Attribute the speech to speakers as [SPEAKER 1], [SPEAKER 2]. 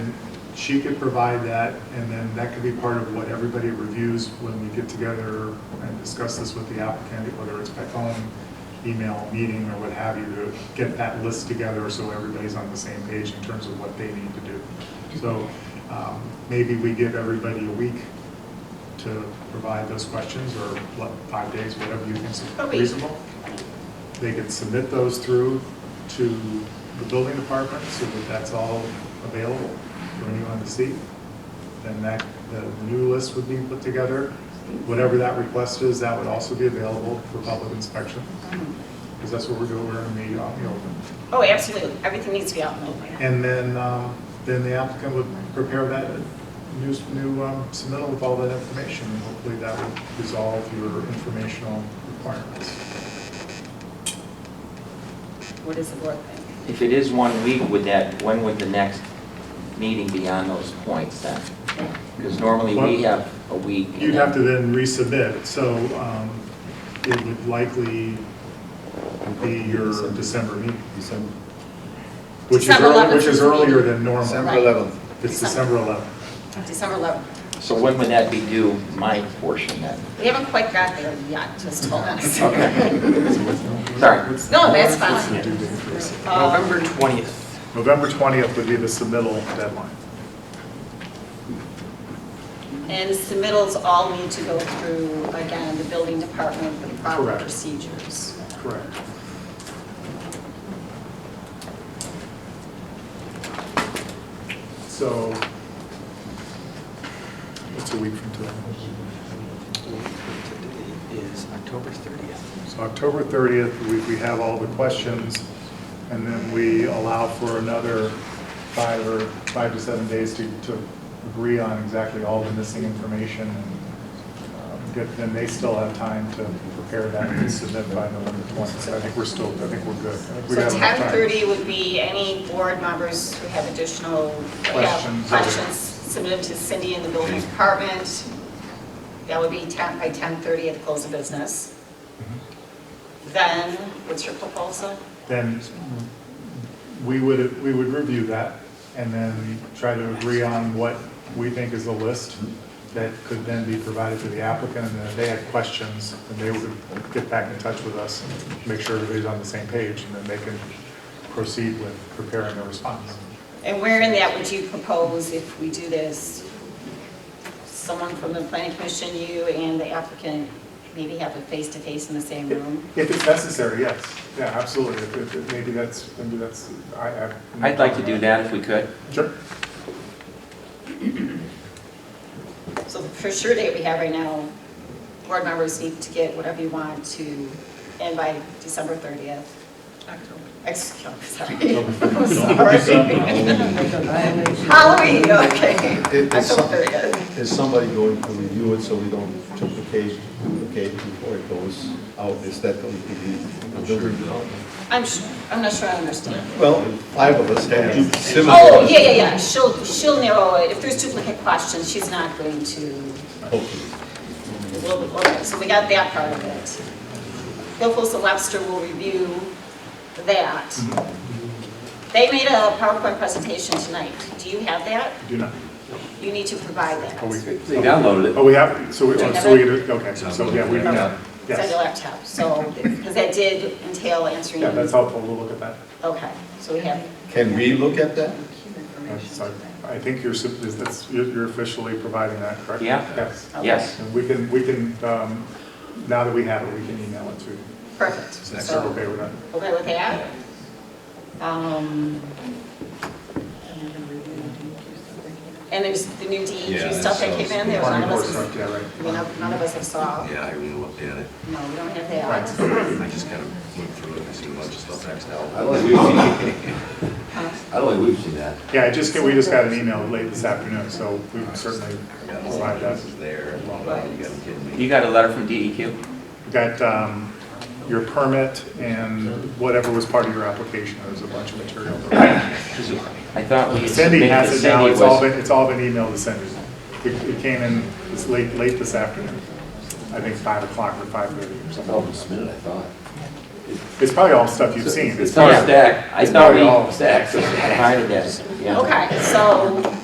[SPEAKER 1] She could provide that, and then that could be part of what everybody reviews when we get together and discuss this with the applicant, whether it's by phone, email, meeting, or what have you, to get that list together so everybody's on the same page in terms of what they need to do. So um, maybe we give everybody a week to provide those questions, or what, five days, whatever you think
[SPEAKER 2] A
[SPEAKER 1] is
[SPEAKER 2] week.
[SPEAKER 1] reasonable. They could submit those through to the building department, so that that's all available for anyone to see. Then that, the new list would be put together. Whatever that request is, that would also be available for public inspection, because that's what we're doing, we're going to meet out in the open.
[SPEAKER 2] Oh, absolutely, everything needs to be out in the open.
[SPEAKER 1] And then, um, then the applicant would prepare that new, new um, submittal with all that information, and hopefully that would resolve your informational requirements.
[SPEAKER 2] What is the board thing?
[SPEAKER 3] If it is one week, would that, when would the next meeting be on those points then? Because normally we have a week. and
[SPEAKER 1] You'd have to
[SPEAKER 3] then-
[SPEAKER 1] then resubmit, so um, it would likely be your December meeting,
[SPEAKER 4] December
[SPEAKER 1] which is,
[SPEAKER 2] December
[SPEAKER 1] early-
[SPEAKER 2] 11th
[SPEAKER 1] which is
[SPEAKER 2] is the meeting.
[SPEAKER 1] earlier than normal.
[SPEAKER 4] December 11th.
[SPEAKER 1] It's December 11th.
[SPEAKER 2] December 11th.
[SPEAKER 3] So when would that be due, my portion then?
[SPEAKER 2] We haven't quite got there yet, just hold on a second.
[SPEAKER 3] Okay. Sorry.
[SPEAKER 2] No, that's
[SPEAKER 1] What's the
[SPEAKER 2] fine.
[SPEAKER 1] due date for this?
[SPEAKER 2] Um, November.
[SPEAKER 5] 20th.
[SPEAKER 1] November 20th would be the submittal deadline.
[SPEAKER 2] And submittals all need to go through, again, the building department with proper
[SPEAKER 1] Correct.
[SPEAKER 2] procedures.
[SPEAKER 1] Correct. So, it's a week from today.
[SPEAKER 5] Today is October 30th.
[SPEAKER 1] So October 30th, we, we have all the questions, and then we allow for another five or, five to seven days to, to agree on exactly all the missing information. and um, get- Then they still have time to prepare that and submit by November 20th. So I think we're still, I think we're good. I think we
[SPEAKER 2] So
[SPEAKER 1] have enough time.
[SPEAKER 2] 10:30 would be any board members who have additional yeah,
[SPEAKER 1] Questions.
[SPEAKER 2] questions submitted to Cindy in the building department. That would be 10, by 10:30 at the close of business.
[SPEAKER 1] Mm-hmm.
[SPEAKER 2] Then, what's your proposal?
[SPEAKER 1] then we would, we would review that and then try to agree on what we think is a list that could then be provided to the applicant, and then if they had questions, then they would get back in touch with us, and make sure everybody's on the same page, and then they can proceed with preparing a response.
[SPEAKER 2] And where in that would you propose if we do this? Someone from the planning commission, you and the applicant, maybe have a face-to-face in the same room?
[SPEAKER 1] If it's necessary, yes, yeah, absolutely, If- if- if maybe that's, maybe that's, I have.
[SPEAKER 3] I'd like to do that if we could.
[SPEAKER 1] Sure.
[SPEAKER 2] So for sure date we have right now, board members need to get whatever you want to, and by December 30th. October. Sorry. Halloween, okay.
[SPEAKER 4] It- it's some-
[SPEAKER 2] October 30th.
[SPEAKER 4] Is somebody going to review it so we don't duplicate, duplicate before it goes out? Is that going to be the building department?
[SPEAKER 2] I'm, su- I'm not sure I understand.
[SPEAKER 4] Well, five of us have similar.
[SPEAKER 2] Oh, yeah, yeah, yeah, she'll, she'll narrow it. If there's duplicate questions, she's not going to Well, all right, so we got that part of it. Hilfos and Webster will review
[SPEAKER 1] Mm-hmm.
[SPEAKER 2] that. They made a PowerPoint presentation tonight. Do you have that?
[SPEAKER 1] Do not.
[SPEAKER 2] You need to provide that.
[SPEAKER 1] Oh, we-
[SPEAKER 3] They downloaded
[SPEAKER 1] Oh, we have, so we, oh, so we, okay, so, yeah, we, yeah,
[SPEAKER 2] It's on
[SPEAKER 1] yes.
[SPEAKER 2] your laptop, so, because that did entail answering.
[SPEAKER 1] Yeah, that's helpful, we'll look at that.
[SPEAKER 2] Okay, so we have,
[SPEAKER 4] Can we look at that?
[SPEAKER 1] That's- I- I think you're, sup- is- that's, you're you're officially providing that, correct?
[SPEAKER 3] Yeah.
[SPEAKER 1] Yes.
[SPEAKER 3] Yes.
[SPEAKER 1] And we can, we can, um, now that we have it, we can email it to you.
[SPEAKER 2] perfect.
[SPEAKER 1] Is
[SPEAKER 2] So,
[SPEAKER 1] that okay with that?
[SPEAKER 2] okay with that? Um, And there's the new DEQ
[SPEAKER 6] Yeah,
[SPEAKER 2] stuff that
[SPEAKER 6] that
[SPEAKER 2] came in
[SPEAKER 6] sounds-
[SPEAKER 2] there. None
[SPEAKER 1] Army
[SPEAKER 2] of
[SPEAKER 1] Corps
[SPEAKER 2] us,
[SPEAKER 1] stuff,
[SPEAKER 2] none
[SPEAKER 1] yeah, right.
[SPEAKER 2] of us have saw.
[SPEAKER 6] Yeah, I haven't even looked at it.
[SPEAKER 2] No, we don't have
[SPEAKER 1] Right.
[SPEAKER 2] that.
[SPEAKER 6] I just kind of went through it and seen a bunch of stuff next to
[SPEAKER 7] I don't think we've seen,
[SPEAKER 2] Huh?
[SPEAKER 7] I don't think we've seen that.
[SPEAKER 1] Yeah, I just, get- we just got an email late this afternoon, so we can certainly provide that.
[SPEAKER 6] This is there, and all that, you gotta be kidding
[SPEAKER 3] You
[SPEAKER 6] me.
[SPEAKER 3] got a letter from E DEQ?
[SPEAKER 1] We Got um, your permit and whatever was part of your application, there's a bunch of material.
[SPEAKER 3] I thought we.
[SPEAKER 1] Cindy has it now,
[SPEAKER 3] Cindy
[SPEAKER 1] it's all
[SPEAKER 3] was-
[SPEAKER 1] been, it's all been emailed to Cindy. It it came in, it's late, late this afternoon, I think 5 o'clock or 5:30 or
[SPEAKER 7] I thought
[SPEAKER 6] Oh.
[SPEAKER 7] we
[SPEAKER 1] something.
[SPEAKER 7] submitted, I thought.
[SPEAKER 1] It's probably all stuff you've seen.
[SPEAKER 3] It's all Oh, stacked. I
[SPEAKER 1] It's
[SPEAKER 3] thought
[SPEAKER 1] probably all
[SPEAKER 3] we stacked. I
[SPEAKER 1] stacked.
[SPEAKER 3] provided that, yeah.
[SPEAKER 2] Okay, so